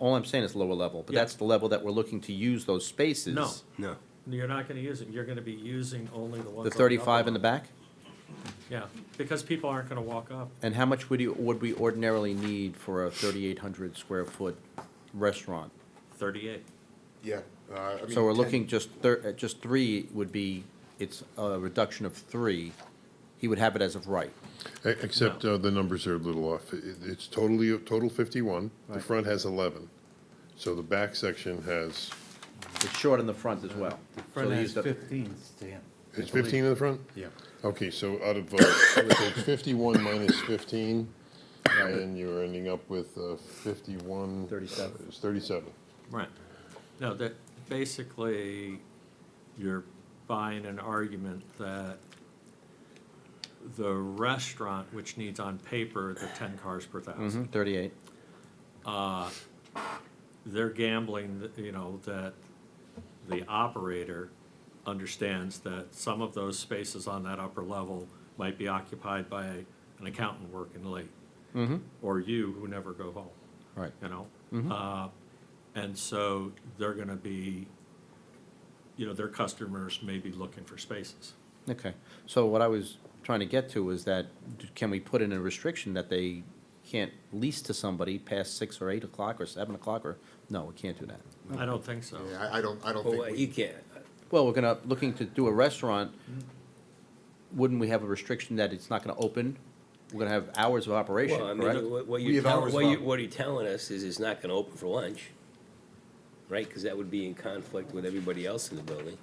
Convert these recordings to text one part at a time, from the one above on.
All I'm saying is lower level, but Yeah. that's the level that we're looking to use those spaces. No. No. You're not gonna use it, you're gonna be using only the ones. The on thirty-five upper in the one. back? Yeah, because people aren't gonna walk up. And how much would you, would we ordinarily need for a thirty-eight hundred square foot restaurant? Thirty-eight. Yeah. uh, I So mean, we're 10 looking just thir, uh, just three would be, it's a reduction of three. He would have it as of right. E- Except uh, the numbers are a little off. It- It's totally, total 51. The front has 11. So the back section has, It's short in the front as well. So Front has he's the- fifteen, Stan. it's 15 in the front? Yeah. Okay, so out of, uh, so it's 51 minus 15, and you're ending up with uh, 51. 37. It's 37. Right. No, that, basically, you're buying an argument that the restaurant, which needs on paper the ten cars per thousand, Mhm, thirty-eight. they're gambling, that, you know, that the operator understands that some of those spaces on that upper level might be occupied by an accountant working late. Mm-hmm. Or you who never go home. Right. You know? Mm-hmm. Uh, And so they're gonna be, you know, their customers may be looking for spaces. Okay, so what I was trying to get to was that, d- can we put in a restriction that they can't lease to somebody past six or eight o'clock or seven o'clock or, no, we can't do that. I don't think so. Yeah, I- I don't, I don't think, Well, you we- can't, Well, we're gonna, looking to do a restaurant, wouldn't we have a restriction that it's not gonna open? We're gonna have hours of operation, well, I correct? mean, what- what We you have tell, hours what you, left. what you're telling us is it's not gonna open for lunch, right? Because that would be in conflict with everybody else in the I building. mean,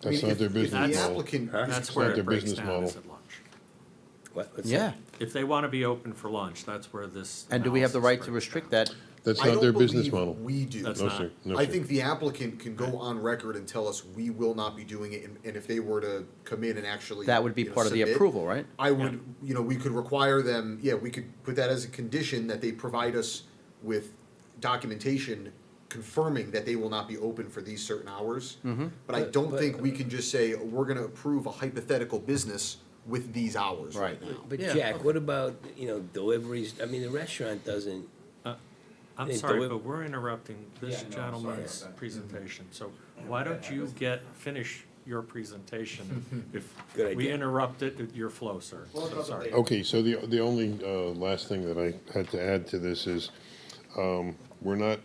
That's not if- their if the business model. applicant, Huh? That's where not it their breaks business down is model. at lunch. What, what's Yeah, that? If they wanna be open for lunch, that's where this. and do we have the analysis right to breaks down. restrict that? That's I not their don't business believe model. we do. That's No, not- sir. No, I sir. think the applicant can go on record and tell us, we will not be doing it, and- and if they were to come in and actually. That would be you know, part of the submit, approval, right? I would, you know, we could require them, yeah, we could put that as a condition that they provide us with documentation confirming that they will not be open for these certain hours. But I But- don't but- think we can just say, we're gonna approve a hypothetical business with these hours right Right. now. But Yeah, Jack, what about, you know, deliveries? I mean, the restaurant doesn't, I'm Hey, sorry, Dewi- but we're interrupting this gentleman's presentation, so why don't you get, finish your presentation if Good we idea. interrupted your flow, sir? So sorry. Okay, so the, the only uh, last thing that I had to add to this is, um, we're not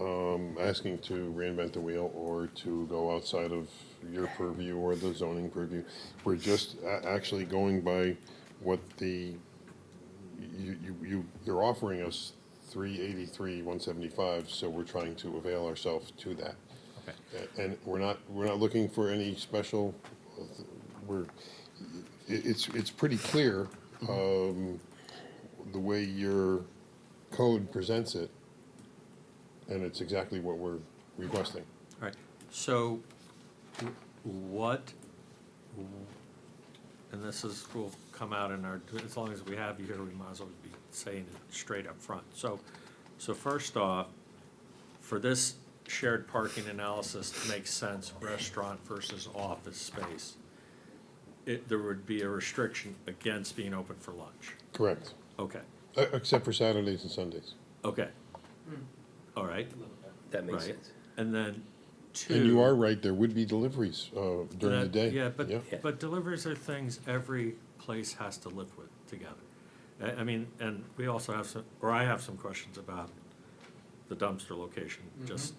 um, asking to reinvent the wheel or to go outside of your purview or the zoning purview. We're just a- actually going by what the, you, you- you, you're offering us 383, 175, so we're trying to avail ourselves to that. A- And we're not, we're not looking for any special, uh, th- we're, it, it's, it's pretty clear, um, the way your code presents it, and it's exactly what we're requesting. All right, so w- what, and this is, will come out in our, as long as we have you here, we might as well be saying it straight up front. So, so first off, for this shared parking analysis to make sense, restaurant versus office space, it, there would be a restriction against being open for lunch. Correct. Okay, E- Except for Saturdays and Sundays. okay. All right, that makes right. sense. And then two. And you are right, there would be deliveries uh, during the That- day. Yeah, but, but deliveries are things every place has to live with together. I, I mean, and we also have some, or I have some questions about the dumpster location, just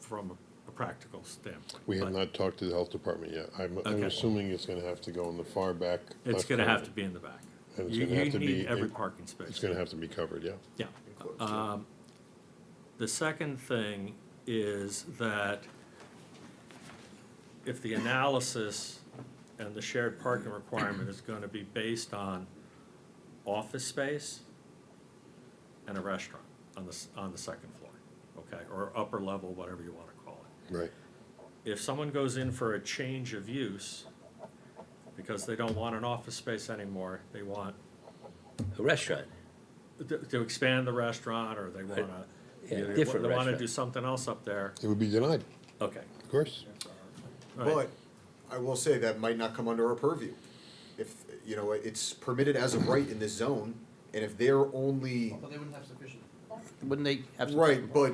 from a practical standpoint. We have but not talked to the health department yet. I'm, I'm Okay. assuming it's gonna have to go in the far back. It's left gonna have to corner. be in the back. And it's You, gonna have you to need be every in- parking space. It's gonna have to be covered, yeah. Yeah. Um, The second thing is that if the analysis and the shared parking requirement is going to be based on office space and a restaurant on the, s- on the second floor, okay, or upper level, whatever you want to call it Right. if someone goes in for a change of use, because they don't want an office space anymore, they want, A restaurant, to, to expand the restaurant, or they wanna, Yeah, they different wa- they wanna restaurant. do something else up there, It would be denied, okay. of course. all right. But I will say that might not come under our purview. If, you know, it's permitted as of right in this zone, and if their only, they wouldn't have sufficient. wouldn't they have some? Right, but